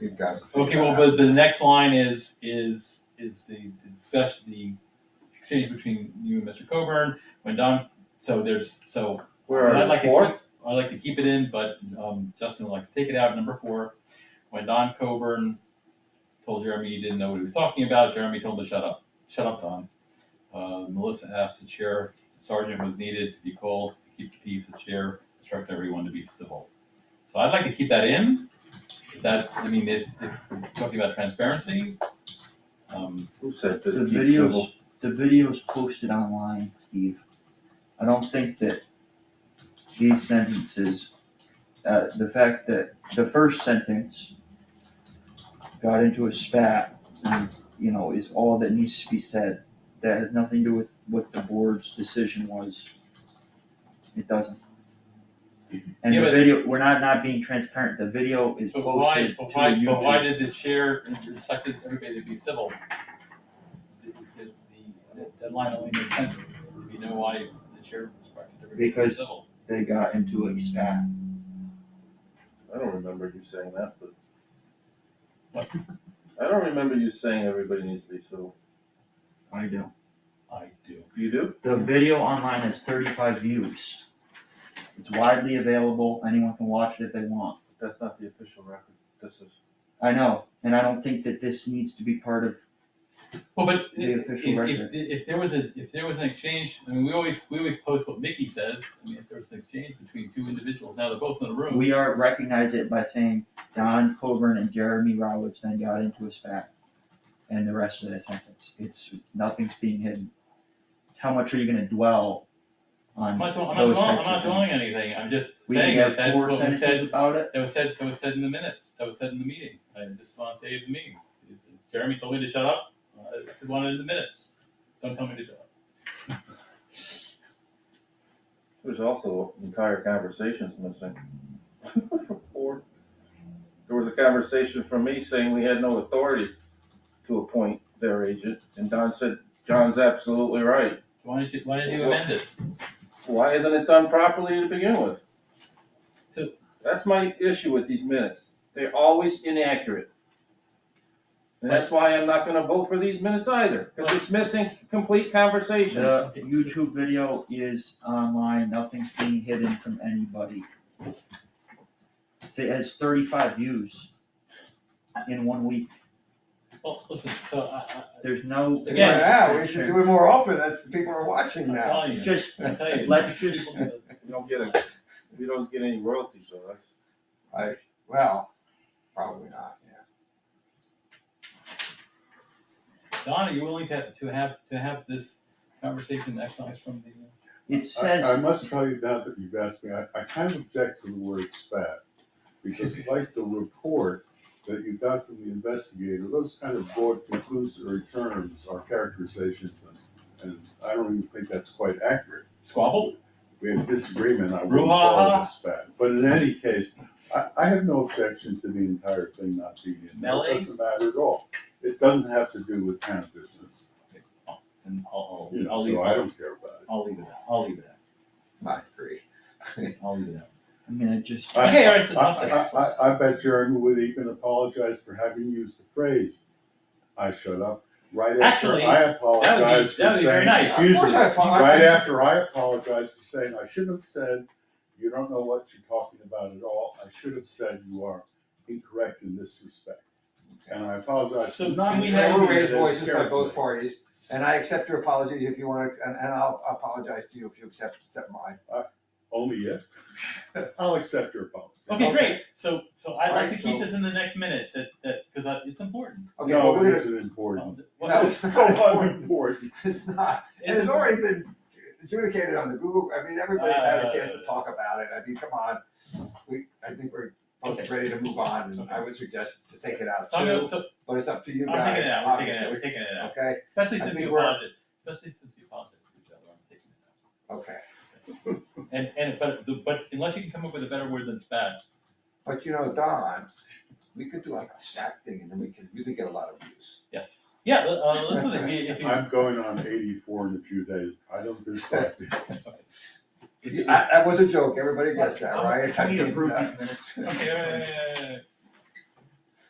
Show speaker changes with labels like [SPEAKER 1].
[SPEAKER 1] It does.
[SPEAKER 2] Okay, well, but the next line is, is, is the discussion, the exchange between you and Mr. Coburn, when Don, so there's, so.
[SPEAKER 3] Where
[SPEAKER 2] I'd
[SPEAKER 3] are
[SPEAKER 2] like
[SPEAKER 3] you,
[SPEAKER 2] to
[SPEAKER 3] four?
[SPEAKER 2] keep- I'd like to keep it in, but, um, Justin would like to take it out, number four, when Don Coburn told Jeremy he didn't know what he was talking about, Jeremy told him to shut up, shut up, Don. Uh, Melissa asked the chair, sergeant was needed to be called, to keep the peace, the chair instructed everyone to be civil. So I'd like to keep that in, that, I mean, if, if we're talking about transparency, um,
[SPEAKER 3] Who said
[SPEAKER 4] The
[SPEAKER 3] to keep
[SPEAKER 4] videos,
[SPEAKER 3] civil?
[SPEAKER 4] the videos posted online, Steve. I don't think that these sentences, uh, the fact that the first sentence got into a spat, and, you know, is all that needs to be said. That has nothing to do with what the board's decision was. It doesn't. And
[SPEAKER 2] Yeah,
[SPEAKER 4] the
[SPEAKER 2] but-
[SPEAKER 4] video, we're not, not being transparent. The video is
[SPEAKER 2] but why,
[SPEAKER 4] posted to
[SPEAKER 2] but
[SPEAKER 4] YouTube.
[SPEAKER 2] why, but why did the chair instruct everybody to be civil? The- the- the- That line only makes sense, if you know why the chair instructed everybody to be
[SPEAKER 4] Because-
[SPEAKER 2] civil.
[SPEAKER 4] They got into a spat.
[SPEAKER 3] I don't remember you saying that, but
[SPEAKER 2] What?
[SPEAKER 3] I don't remember you saying everybody needs to be civil.
[SPEAKER 4] I do.
[SPEAKER 2] I do.
[SPEAKER 3] You do?
[SPEAKER 4] The video online has thirty-five views. It's widely available, anyone can watch it if they want.
[SPEAKER 3] That's not the official record. This is,
[SPEAKER 4] I know, and I don't think that this needs to be part of,
[SPEAKER 2] Well, but
[SPEAKER 4] The
[SPEAKER 2] if, if,
[SPEAKER 4] official
[SPEAKER 2] if
[SPEAKER 4] record.
[SPEAKER 2] if there was a, if there was an exchange, I mean, we always, we always post what Mickey says, I mean, if there was an exchange between two individuals, now they're both in the room.
[SPEAKER 4] we are, recognize it by saying Don Coburn and Jeremy Roberts then got into a spat. And the rest of the sentence, it's, nothing's being hidden. How much are you gonna dwell on
[SPEAKER 2] I'm not, doing- I'm
[SPEAKER 4] those types of things?
[SPEAKER 2] not doing, I'm not doing anything, I'm just
[SPEAKER 4] We can
[SPEAKER 2] saying that
[SPEAKER 4] have
[SPEAKER 2] that's
[SPEAKER 4] four
[SPEAKER 2] what we said
[SPEAKER 4] sentences about it,
[SPEAKER 2] That was said, that was said in the minutes, that was said in the meeting, I just wanna say it in the meetings. Jeremy told me to shut up, I just wanted it in the minutes, don't tell me to shut up.
[SPEAKER 3] there's also entire conversations missing. Or, there was a conversation from me saying we had no authority to appoint their agent, and Don said, John's absolutely right.
[SPEAKER 2] Why did you, why did you amend it?
[SPEAKER 3] Why isn't it done properly to begin with?
[SPEAKER 2] So-
[SPEAKER 3] That's my issue with these minutes. They're always inaccurate. And that's why I'm not gonna vote for these minutes either, because it's missing complete conversations.
[SPEAKER 4] The YouTube video is online, nothing's being hidden from anybody. It has thirty-five views in one week,
[SPEAKER 2] Well, listen, so I, I,
[SPEAKER 4] there's no.
[SPEAKER 2] Again,
[SPEAKER 1] Yeah, we should do it more often, that's, people are watching
[SPEAKER 2] I'm
[SPEAKER 1] now.
[SPEAKER 2] telling
[SPEAKER 4] It's
[SPEAKER 2] you,
[SPEAKER 4] just,
[SPEAKER 2] I'm telling you.
[SPEAKER 4] let's just-
[SPEAKER 2] people-
[SPEAKER 3] You don't get it, you don't get any royalties on us.
[SPEAKER 1] Like, well, probably not, yeah.
[SPEAKER 2] Don, are you willing to, to have, to have this conversation excised from the?
[SPEAKER 4] it
[SPEAKER 5] I I
[SPEAKER 4] says,
[SPEAKER 5] must tell you now that you've asked me, I, I kind of object to the word spat. Because like the report that you got from the investigator, those kind of broad conclusory terms are characterizations and, and I don't even think that's quite accurate.
[SPEAKER 2] Squabble?
[SPEAKER 5] We had disagreement, I wouldn't call it
[SPEAKER 2] Brouhaha.
[SPEAKER 5] a spat. But in any case, I, I have no objection to the entire thing not being in there.
[SPEAKER 2] Melee?
[SPEAKER 5] It doesn't matter at all. It doesn't have to do with town business,
[SPEAKER 2] And I'll,
[SPEAKER 5] you
[SPEAKER 2] I'll, I'll
[SPEAKER 5] know,
[SPEAKER 2] leave,
[SPEAKER 5] so I don't care about it.
[SPEAKER 2] I'll leave it out, I'll leave it out,
[SPEAKER 1] I agree.
[SPEAKER 2] I'll leave it out.
[SPEAKER 4] I mean, it just,
[SPEAKER 5] I-
[SPEAKER 2] Okay, all right, so
[SPEAKER 5] I,
[SPEAKER 2] enough there.
[SPEAKER 5] I, I, I bet Jeremy would even apologize for having used the phrase, I shut up, right after
[SPEAKER 2] Actually,
[SPEAKER 5] I apologized
[SPEAKER 2] that
[SPEAKER 5] for
[SPEAKER 2] would be very
[SPEAKER 5] saying,
[SPEAKER 2] nice.
[SPEAKER 5] excuse
[SPEAKER 1] Of course
[SPEAKER 5] me,
[SPEAKER 1] I apologize.
[SPEAKER 5] right after I apologized for saying, I shouldn't have said, you don't know what you're talking about at all, I should have said you are incorrect in this respect. And I apologize
[SPEAKER 2] So
[SPEAKER 5] for not.
[SPEAKER 2] can we
[SPEAKER 1] There
[SPEAKER 2] have-
[SPEAKER 1] were
[SPEAKER 5] taking it
[SPEAKER 1] raised
[SPEAKER 5] as
[SPEAKER 1] voices by
[SPEAKER 5] carefully.
[SPEAKER 1] both parties, and I accept your apology if you want to, and, and I'll apologize to you if you accept, accept mine.
[SPEAKER 5] Only if, I'll accept your apology.
[SPEAKER 2] Okay,
[SPEAKER 1] Okay.
[SPEAKER 2] great, so, so I'd like to
[SPEAKER 1] Alright,
[SPEAKER 2] keep
[SPEAKER 1] so-
[SPEAKER 2] this in the next minutes, that, that, cause I, it's important.
[SPEAKER 1] Okay, well,
[SPEAKER 5] No,
[SPEAKER 1] we're
[SPEAKER 5] it
[SPEAKER 1] gonna-
[SPEAKER 5] isn't important.
[SPEAKER 2] What-
[SPEAKER 1] No,
[SPEAKER 5] It's so unimportant.
[SPEAKER 1] it's not, and
[SPEAKER 2] It's-
[SPEAKER 1] it's already been adjudicated on the Google, I mean, everybody's had a chance to
[SPEAKER 2] Uh,
[SPEAKER 1] talk about it, I mean, come on. We, I think we're both
[SPEAKER 2] Okay.
[SPEAKER 1] ready to move on, and I
[SPEAKER 2] Okay.
[SPEAKER 1] would suggest to take it out
[SPEAKER 2] So I'm gonna,
[SPEAKER 1] too,
[SPEAKER 2] so,
[SPEAKER 1] but it's up to you
[SPEAKER 2] I'm
[SPEAKER 1] guys,
[SPEAKER 2] taking it out, we're taking it out,
[SPEAKER 1] obviously,
[SPEAKER 2] we're taking it out,
[SPEAKER 1] okay,
[SPEAKER 2] especially
[SPEAKER 1] I
[SPEAKER 2] since
[SPEAKER 1] think
[SPEAKER 2] you
[SPEAKER 1] we're-
[SPEAKER 2] apologized, especially since you apologized to each other, I'm taking it
[SPEAKER 1] okay.
[SPEAKER 2] out. And, and, but, the- but unless you can come up with a better word than spat,
[SPEAKER 1] But you know, Don, we could do like a stack thing, and then we could really get a lot of views.
[SPEAKER 2] yes, yeah, uh, listen, if you, if you.
[SPEAKER 5] I'm going on eighty-four in a few days, I don't do selective.
[SPEAKER 2] if you-
[SPEAKER 1] I- That was a joke, everybody gets that, right?
[SPEAKER 4] I need to prove
[SPEAKER 1] I mean, uh,
[SPEAKER 4] these minutes.
[SPEAKER 2] Okay, yeah, yeah, yeah, yeah, yeah.